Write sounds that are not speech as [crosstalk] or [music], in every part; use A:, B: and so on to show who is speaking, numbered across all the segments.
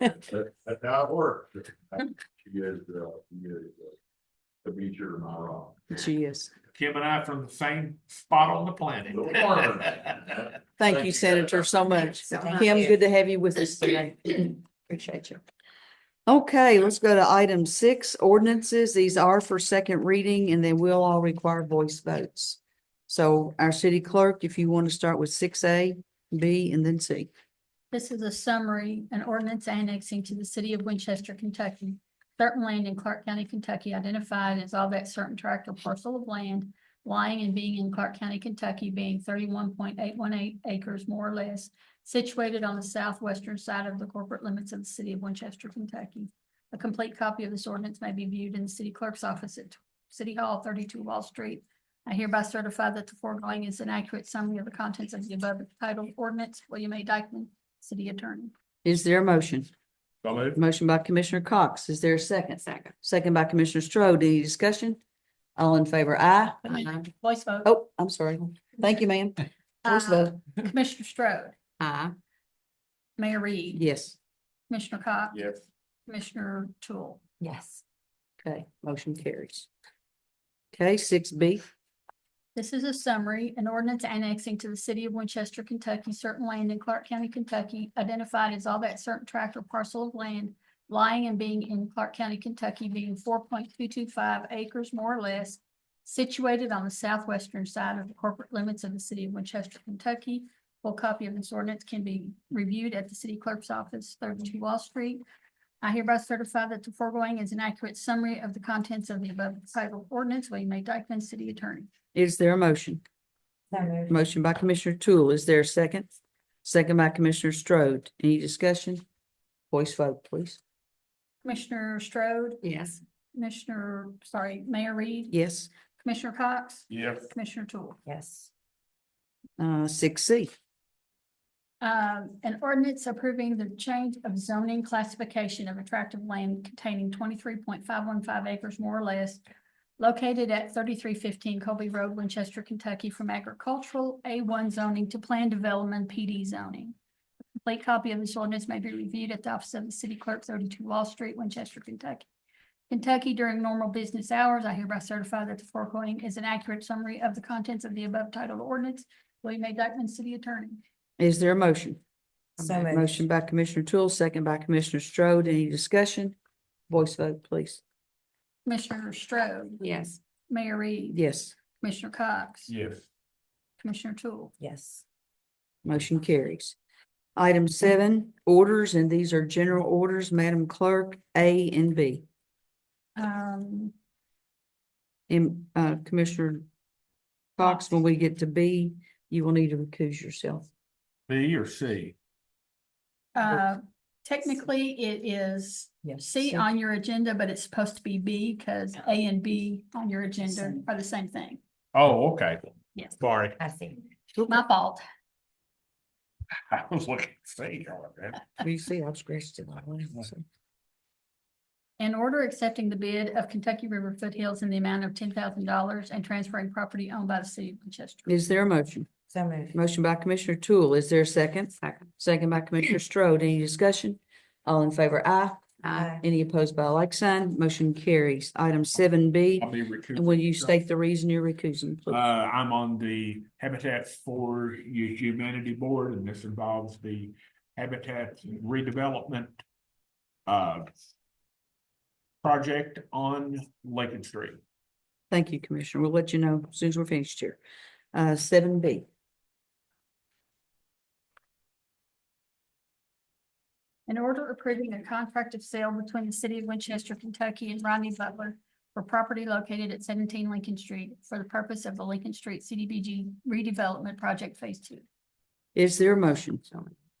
A: That, that's how it works. She is, uh, she is. uh, The beacher in my rock.
B: She is.
C: Kim and I from the same spot on the planet. [laughs]
A: The farmer.
B: Thank you, Senator, so much. Kim, good to have you with us today. [clears throat] Appreciate you. Okay, let's go to item six, ordinances. These are for second reading and they will all require voice votes. So our city clerk, if you want to start with six A, B, and then C.
D: This is a summary, an ordinance annexing to the city of Winchester, Kentucky. Certain land in Clark County, Kentucky identified as all that certain tract or parcel of land lying and being in Clark County, Kentucky, being thirty-one point eight one eight acres more or less, situated on the southwestern side of the corporate limits of the city of Winchester, Kentucky. A complete copy of this ordinance may be viewed in the city clerk's office at City Hall, thirty-two Wall Street. I hereby certify that the foregoing is an accurate summary of the contents of the above titled ordinance. William A. Dykeman, City Attorney.
B: Is there a motion?
A: So moved.
B: Motion by Commissioner Cox. Is there a second? Second. Second by Commissioner Strode. Any discussion? All in favor, aye.
D: Aye. Voice vote.
B: Oh, I'm sorry. Thank you, ma'am. Voice
D: Uh,
B: vote.
D: Commissioner Strode,
B: Aye.
D: Mayor Reed,
B: Yes.
D: Commissioner Cox,
A: Yes.
D: Commissioner Tool.
B: Yes. Okay, motion carries. Okay, six B,
D: This is a summary, an ordinance annexing to the city of Winchester, Kentucky, certain land in Clark County, Kentucky, identified as all that certain tract or parcel of land lying and being in Clark County, Kentucky, being four point two two five acres more or less, situated on the southwestern side of the corporate limits of the city of Winchester, Kentucky. Full copy of this ordinance can be reviewed at the city clerk's office, thirty-two Wall Street. I hereby certify that the foregoing is an accurate summary of the contents of the above titled ordinance. William A. Dyckman, City Attorney.
B: is there a motion? Motion by Commissioner Tool, is there a second? Second by Commissioner Strode, any discussion? Voice vote, please.
D: Commissioner Strode,
B: Yes.
D: Commissioner, sorry, Mayor Reed,
B: Yes,
D: Commissioner Cox,
A: Yes.
D: Commissioner Tool.
E: Yes,
B: uh, six C,
D: Um, an ordinance approving the change of zoning classification of attractive land containing twenty-three point five one five acres more or less located at thirty-three fifteen Colby Road, Winchester, Kentucky, from agricultural A one zoning to planned development PD zoning. A Complete copy of this ordinance may be reviewed at the office of the city clerk, thirty-two Wall Street, Winchester, Kentucky. Kentucky during normal business hours, I hereby certify that the foregoing is an accurate summary of the contents of the above titled ordinance. William A. Dyckman, City Attorney.
B: is there a motion?
E: so moved.
B: Motion by Commissioner Tool, second by Commissioner Strode, any discussion? Voice vote, please.
D: Commissioner Strode,
E: Yes.
D: Mayor Reed.
B: Yes,
D: Commissioner Cox.
A: Yes.
D: Commissioner Tool.
E: Yes,
B: motion carries. Item seven, orders, and these are general orders, Madam Clerk, A and B.
D: Um,
B: And uh, Commissioner Cox, when we get to B, you will need to recuse yourself.
C: B or C?
D: uh, technically, it is
E: yes.
D: C on your agenda, but it's supposed to be B because A and B on your agenda are the same thing.
C: Oh, okay.
D: Yes.
C: Sorry, [laughs]
E: I see.
D: My fault.
C: I was looking at C. all right.
B: You see, I've scratched it. out, so.
D: An order accepting the bid of Kentucky River Foothills in the amount of ten thousand dollars and transferring property owned by the city of Winchester.
B: Is there a motion?
E: So moved.
B: Motion by Commissioner Tool. Is there a second? Second. Second by Commissioner Strode. Any discussion? All in favor, aye.
E: Aye.
B: Any opposed by like sign? Motion carries. Item seven B,
C: I'll be
B: and will
C: recouping.
B: you state the reason you're recusing,
C: Uh,
B: please?
C: I'm on the Habitat for Humanity Board and this involves the Habitat redevelopment uh project on Lincoln Street.
B: Thank you, Commissioner. We'll let you know as soon as we're finished here. Uh, seven B,
D: An order approving a contract of sale between the city of Winchester, Kentucky and Rodney Butler for property located at seventeen Lincoln Street for the purpose of the Lincoln Street CDBG redevelopment project phase two.
B: is there a motion?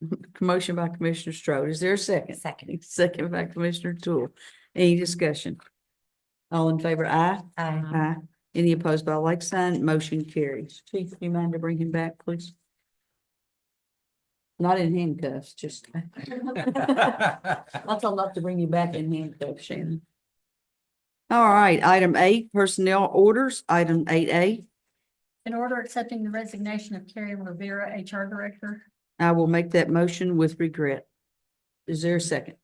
B: [laughs] Motion by Commissioner Strode. Is there a second?
E: Second.
B: Second by Commissioner Tool. Any discussion? All in favor, aye?
E: Aye.
B: Aye. Any opposed by like sign? Motion carries. Chief, you mind to bring him back, please? Not in handcuffs, [laughs] just. I'll tell him not to bring you back in handcuffs, Shannon. All right, item eight, personnel orders, item eight A.
D: An order accepting the resignation of Carrie Rivera, HR Director.
B: I will make that motion with regret. Is there a second?